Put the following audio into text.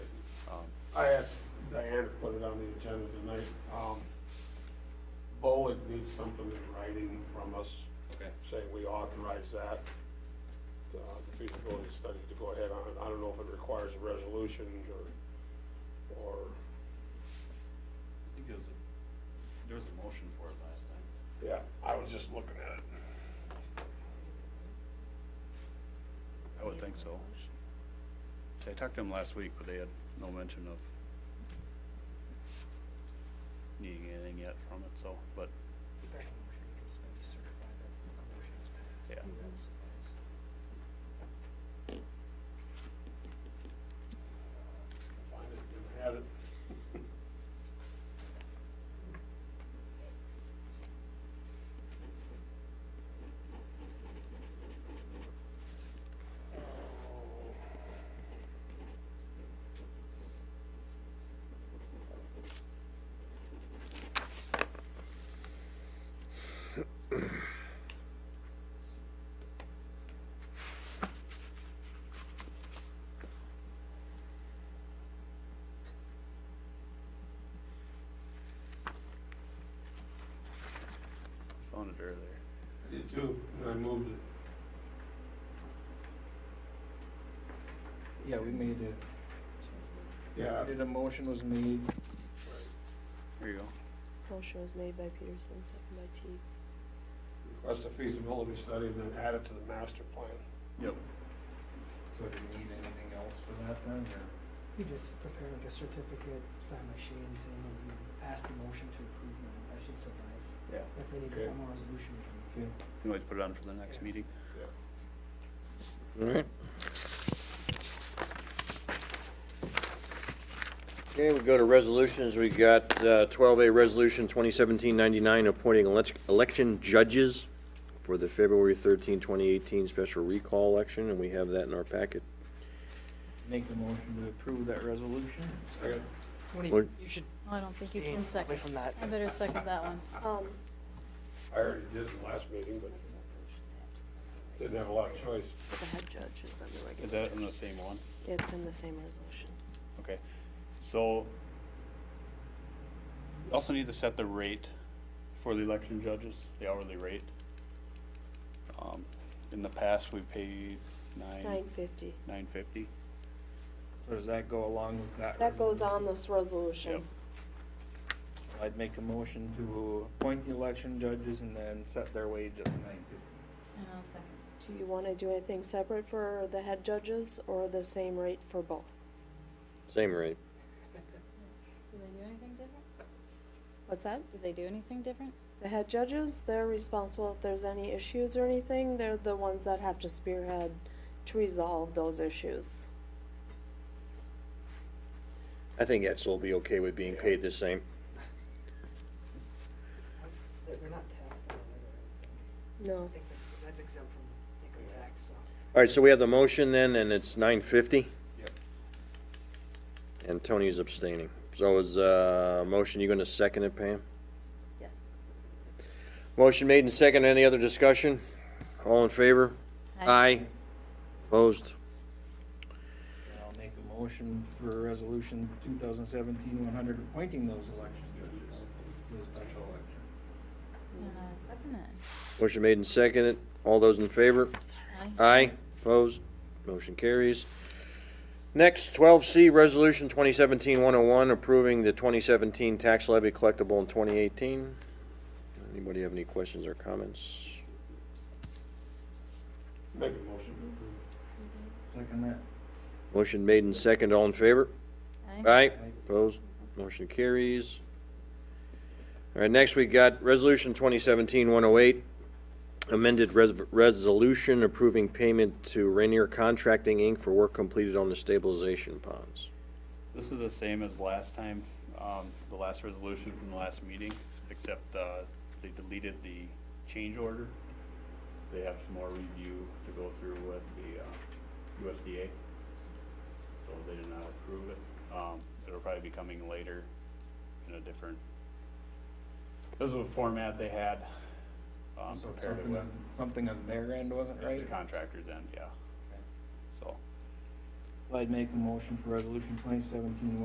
Um, from us Okay, saying we authorize that, uh, the feasibility study to go ahead on it. I don't know if it requires a resolution or, or, I think it was, a there was a motion for it last time. yeah, I was just looking at it. I would think so. See, I talked to them last week, but they had no mention of needing anything yet from it, so, but, yeah. Find it, didn't have it. Found it earlier. I did too, and I moved it. Yeah, we made it. Yeah. Did a motion was made, Here you go. Motion was made by Peterson, second by Teagues. Request a feasibility study and then add it to the master plan. Yep. so do we need anything else for that then, or? You just prepare like a certificate, sign by Shane saying that you passed the motion to approve them, I should suffice. Yeah. If they need Okay. a formal resolution, we can. Okay. You can always put it on for the next meeting. All right. Okay, we go to resolutions. We got uh, twelve A, Resolution 2017-99, appointing elec- election judges for the February 13, 2018 special recall election, and we have that in our packet. Make the motion to approve that resolution? Second. Well- Tony, you should I don't think you stay can away second. from that. I better second that one. Um, I already did in the last meeting, but didn't have a lot of choice. the head judge is under regular. Is that in the same one? It's in the same resolution. Okay, so you also need to set the rate for the election judges, the hourly rate. Um, in the past, we paid Nine nine, fifty. nine fifty. So does that go along with that? That goes resolution? on this resolution. Yep. I'd make a motion to appoint the election judges and then set their wage at nine fifty. And I'll second. Do you wanna do anything separate for the head judges or the same rate for both? Same rate. Do they do anything different? What's that? Do they do anything different? The head judges, they're responsible if there's any issues or anything, they're the ones that have to spearhead to resolve those issues. I think Etzel will be okay with being paid the same. They're not taxed on it. No. That's ex- That's exempt from income tax, so. All right, so we have the motion then, and it's 950? Yep. And Tony's abstaining. So is, uh, motion, you gonna second it, Pam? Yes. Motion made and second. Any other discussion? All in favor? Opposed? And I'll make a motion for resolution 2017-100 appointing those election judges to the special election. And I'll second it. Motion made and seconded. All those in favor? Aye. Aye. Opposed? Motion carries. Next, twelve C, Resolution 2017-101, approving the twenty seventeen tax levy collectible in twenty eighteen. Anybody have any questions or comments? Make a motion to approve. Second that. Motion made and seconded. All in favor? Aye. Aye. Opposed? Motion carries. All right, next we got Resolution 2017-108, amended res- resolution approving payment to Rainier Contracting, Inc. for work completed on the stabilization ponds. This is the same as last time, um, the last resolution from the last meeting, except, uh, they deleted the change order. They have some more review to go through with the, uh, USDA. So they did not approve it. Um, it'll probably be coming later in a different, this is a format they had, um, So prepared it something, with. on- something on their end wasn't It's the right? contractor's end, yeah. So. So I'd make a motion for resolution 2017-108